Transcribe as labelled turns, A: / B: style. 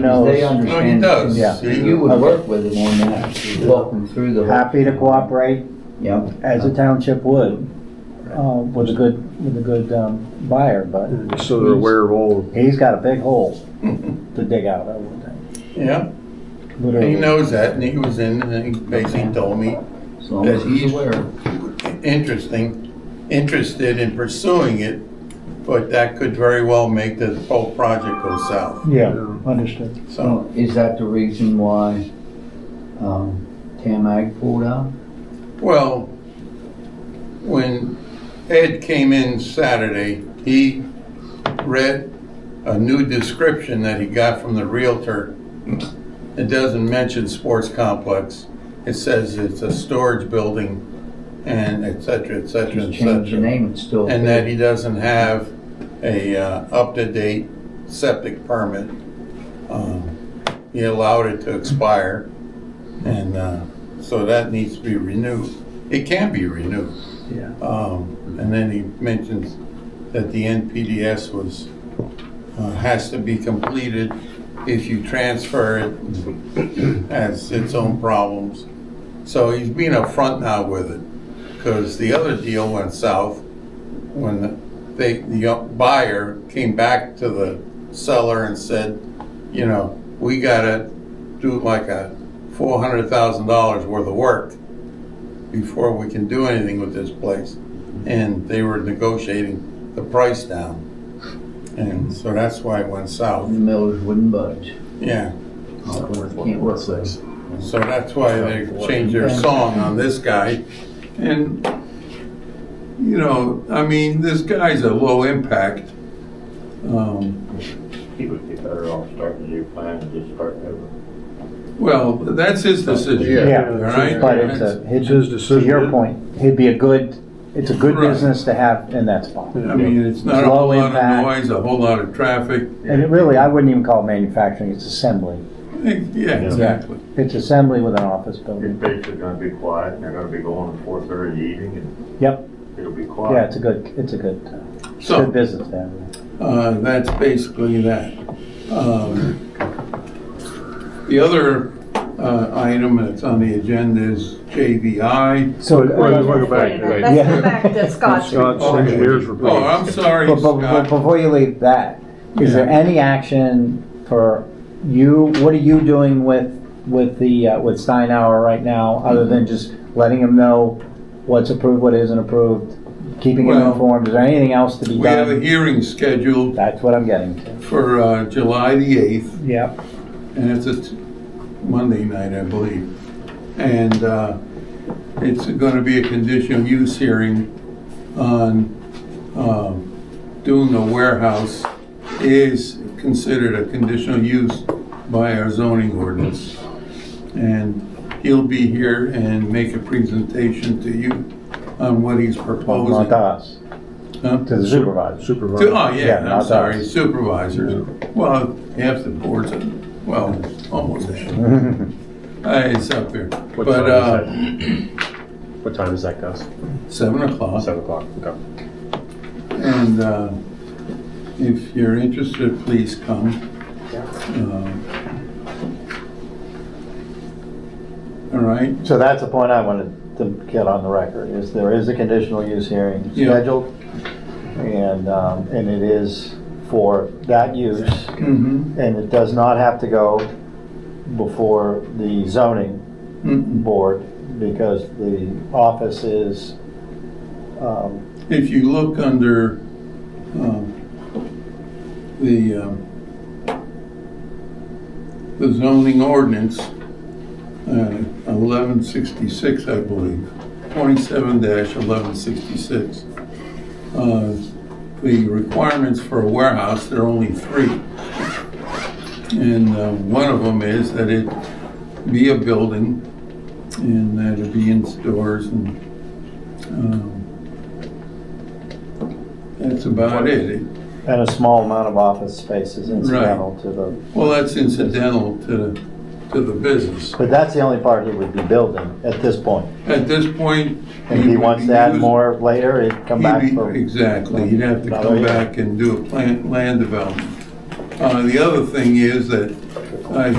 A: They
B: knows,
C: No,
A: understand.
C: he does.
A: Yeah.
C: He-
B: you would
A: Okay.
B: work with him on that, walk him through the.
A: Happy to cooperate
B: Yep.
A: as a township would, uh, with a good, with a good, um, buyer, but
D: So they're aware of all
A: he's got a big hole to dig out, I would think.
C: Yeah, and
A: Literally.
C: he knows that, and he was in, and he basically told me,
B: As long as he's aware.
C: interesting, interested in pursuing it, but that could very well make the whole project go south,
A: Yeah, understood.
C: so.
B: So is that the reason why, um, Tam Ag pulled out?
C: Well, when Ed came in Saturday, he read a new description that he got from the Realtor. It doesn't mention sports complex. It says it's a storage building and et cetera, et cetera,
B: Just
C: et
B: change the
C: cetera.
B: name, it's still.
C: And that he doesn't have a uh, up-to-date septic permit. Um, He allowed it to expire, and uh, so that needs to be renewed. It can be renewed.
A: Yeah.
C: Um, And then he mentions that the NPDS was, uh, has to be completed if you transfer it, has its own problems. So he's being upfront now with it, because the other deal went south when the- they, the buyer came back to the seller and said, you know, we gotta do like a four hundred thousand dollars worth of work before we can do anything with this place. And they were negotiating the price down. And so that's why it went
B: The
C: south.
B: millers wouldn't budge.
C: Yeah,
B: Can't work with it.
C: so that's why they changed their song on this guy. And, you know, I mean, this guy's a low impact. Um,
E: He would be better off starting a new plan and just starting over.
C: well, that's his decision.
A: Yeah.
C: All right?
A: But it's a,
D: It's his
A: he'd- to
D: decision,
A: your
D: isn't it?
A: point, it'd be a good, it's a good
C: Right.
A: business to have in that spot.
C: I mean, it's not a
A: Low
C: whole lot of
A: impact.
C: noise, a whole lot of traffic.
A: And it really, I wouldn't even call it manufacturing, it's assembly.
C: Eh, Yeah, exactly.
A: It's assembly with an office
E: It's
A: building.
E: basically gonna be quiet, and they're gonna be going at four thirty eating, and
A: Yep,
E: it'll be
A: yeah,
E: quiet.
A: it's a good, it's a good, uh,
C: So.
A: good business there.
C: Uh, that's basically that. Um, The other uh, item that's on the agenda is JVI.
A: So.
D: Wait, wait, wait,
F: Wait a minute,
D: wait.
A: Yeah.
F: Let's go back to Scott's
D: Scott's
F: report.
D: engineers report.
C: Oh, I'm sorry,
A: But, but- but
C: Scott.
A: before you leave that, is there any action for you, what are you doing with, with the, uh, with Steinauer right now, other
C: Mm-hmm.
A: than just letting him know what's approved, what isn't approved, keeping him
C: Well,
A: informed, is there anything else to be
C: We have a
A: done?
C: hearing scheduled
A: That's what I'm getting to.
C: for uh, July the 8th,
A: Yep.
C: and it's a t- Monday night, I believe. And uh, it's gonna be a conditional use hearing on um, doing a warehouse is considered a conditional use by our zoning ordinance. And he'll be here and make a presentation to you on what he's proposing.
A: Not to us,
C: Huh?
A: to the supervisor.
C: To-
D: supervisor.
C: Oh,
A: Yeah,
C: yeah,
A: not
C: I'm
A: us.
C: sorry, supervisors. Well, half the boards, are- well, almost half. Uh, It's up there.
G: What
C: But uh,
G: time is that? What time is that, Gus?
C: seven o'clock.
G: Seven o'clock, okay.
C: And uh, if you're interested, please come. Um, All right,
A: So that's the point I wanted to get on the record, is there is a conditional use hearing
C: Yeah.
A: scheduled, and, um, and it is for that use.
C: Mhm.
A: And it does not have to go before the zoning
C: Mm-mm.
A: board because the office is, um,
C: If you look under um, the um, the zoning ordinance, uh, 1166, I believe, 27-1166, uh, the requirements for a warehouse, there are only three. And uh, one of them is that it be a building and that it be in stores and um, that's about it. It-
A: and a small amount of office space is incidental to the,
C: Well, that's incidental to, to the business.
A: but that's the only part he would be building at this point.
C: At this point.
A: And if he
C: would
A: wants
C: be
A: to add
C: using-
A: more later, he'd come
C: he'd
A: back
C: be-
A: for.
C: Exactly, he'd have to
A: Another
C: come
A: year.
C: back and do a plant, land development. Uh, the other thing is that I